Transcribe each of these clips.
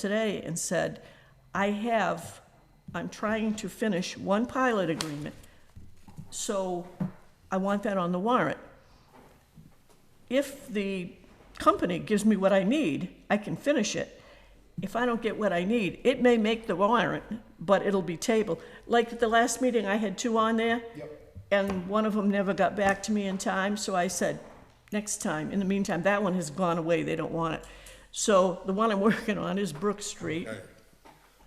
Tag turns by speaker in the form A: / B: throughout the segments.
A: today and said, I have, I'm trying to finish one pilot agreement, so I want that on the warrant. If the company gives me what I need, I can finish it. If I don't get what I need, it may make the warrant, but it'll be tabled. Like at the last meeting, I had two on there. And one of them never got back to me in time, so I said, next time. In the meantime, that one has gone away, they don't want it. So the one I'm working on is Brook Street.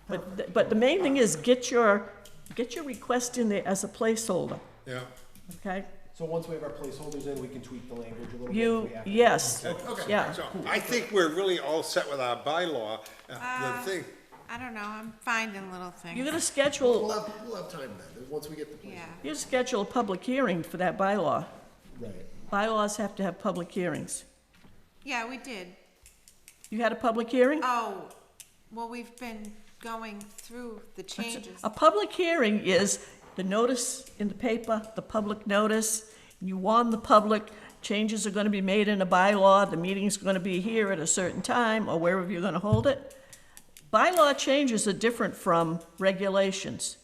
A: But, th- but the main thing is get your, get your request in there as a placeholder,
B: Yeah,
A: okay?
C: So once we have our placeholders in, we can tweak the language a little bit.
A: You,
C: if we have to.
A: yes,
B: okay,
A: yeah.
B: so I think we're really all set with our bylaw, uh, the thing,
D: I don't know, I'm finding little
A: You're
D: things,
A: gonna schedule,
C: We'll have, we'll have time then, once we get the place.
D: yeah.
A: you schedule a public hearing for that bylaw.
C: Right.
A: Bylaws have to have public hearings.
D: Yeah, we did.
A: You had a public hearing?
D: Oh, well, we've been going through the changes.
A: A public hearing is the notice in the paper, the public notice, you warn the public, changes are gonna be made in a bylaw, the meeting's gonna be here at a certain time, or wherever you're gonna hold it. Bylaw changes are different from regulations.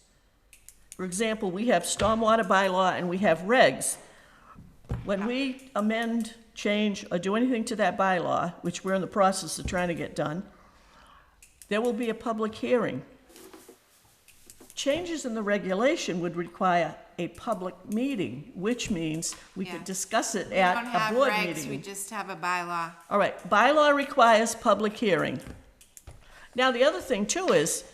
A: For example, we have stormwater bylaw and we have regs. When we amend, change, or do anything to that bylaw, which we're in the process of trying to get done, there will be a public hearing. Changes in the regulation would require a public meeting, which means we
D: Yeah.
A: could discuss it
D: We
A: at
D: don't
A: a
D: have
A: board
D: regs, we
A: meeting.
D: just have a bylaw.
A: All right, bylaw requires public hearing. Now, the other thing too is,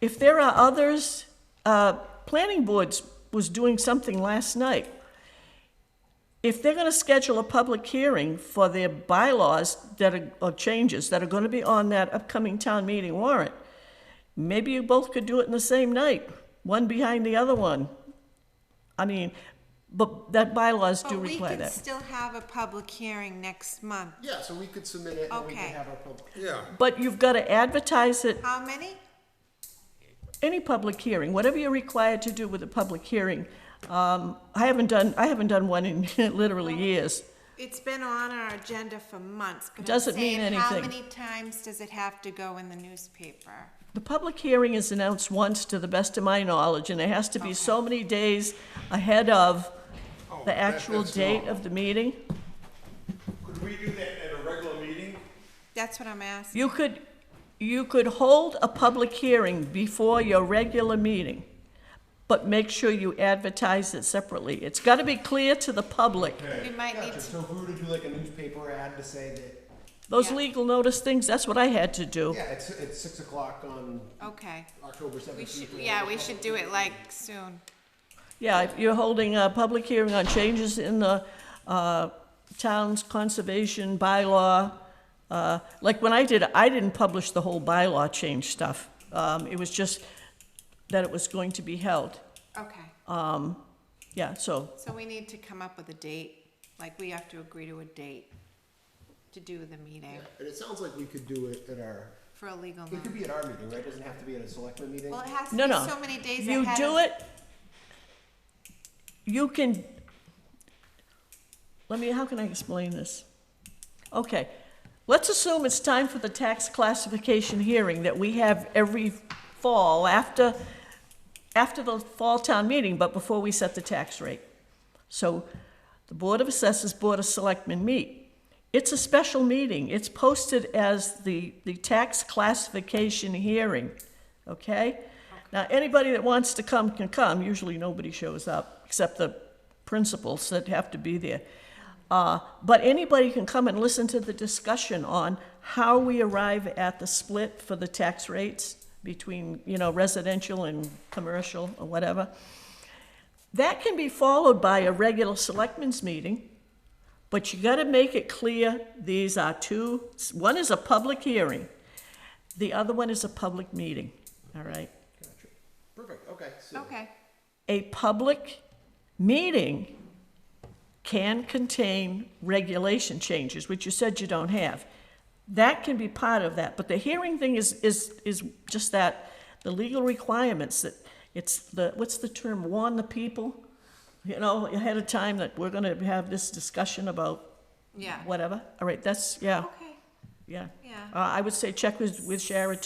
A: if there are others, uh, planning boards was doing something last night. If they're gonna schedule a public hearing for their bylaws that are, or changes that are gonna be on that upcoming town meeting warrant, maybe you both could do it in the same night, one behind the other one. I mean, but that bylaws do
D: But we
A: require
D: can
A: that.
D: still have a public hearing next month.
C: Yeah, so we could submit it and we can
D: Okay.
C: have our public.
B: yeah.
A: But you've gotta advertise it
D: How many?
A: any public hearing, whatever you're required to do with a public hearing. Um, I haven't done, I haven't done one in literally years.
D: It's been on our agenda for months, but I'm
A: Doesn't mean
D: saying, how
A: anything.
D: many times does it have to go in the newspaper?
A: The public hearing is announced once, to the best of my knowledge, and it has to be so many days ahead of
B: Oh,
A: the
B: that-
A: actual
B: that's
A: date
B: normal.
A: of the meeting.
E: Could we do that at a regular meeting?
D: That's what I'm asking.
A: You could, you could hold a public hearing before your regular meeting, but make sure you advertise it separately. It's gotta be clear to the public.
D: We might
C: Gotcha,
D: need to,
C: so if we were to do like a newspaper ad to say that,
A: Those
D: Yeah.
A: legal notice things, that's what I had to do.
C: yeah, it's, it's six o'clock on
D: okay.
C: October
D: We
C: seventeenth.
D: should, yeah, we should do it like soon.
A: Yeah, if you're holding a public hearing on changes in the uh, town's conservation bylaw. uh, Like when I did, I didn't publish the whole bylaw change stuff. Um, It was just that it was going to be held.
D: Okay.
A: Yeah, so,
D: So we need to come up with a date, like we have to agree to a date to do the meeting
C: And it sounds like we could do it at our,
D: for a legal
C: it could
D: notice.
C: be at our meeting, right? It doesn't have to be at a selectman meeting.
D: Well, it has to
A: no,
D: be
A: no.
D: so many days
A: You
D: ahead.
A: do
D: of-
A: it, you can, let me, how can I explain this? Okay, let's assume it's time for the tax classification hearing that we have every fall after, after the fall town meeting, but before we set the tax rate. So the Board of Assessors, Board of Selectmen meet. It's a special meeting. It's posted as the, the tax classification hearing, okay? Now, anybody that wants to come can come. Usually, nobody shows up, except the principals that have to be there. Uh, But anybody can come and listen to the discussion on how we arrive at the split for the tax rates between, you know, residential and commercial or whatever. That can be followed by a regular selectmen's meeting, but you gotta make it clear, these are two, one is a public hearing, the other one is a public meeting, all right?
C: Gotcha. Perfect, okay, so,
D: Okay,
A: A public meeting can contain regulation changes, which you said you don't have. That can be part of that, but the hearing thing is, is, is just that, the legal requirements that, it's the, what's the term, warn the people? You know, ahead of time that we're gonna have this discussion about
D: yeah.
A: whatever, all right, that's, yeah,
D: Okay,
A: yeah.
D: yeah.
A: Uh, I would say check with, with Shara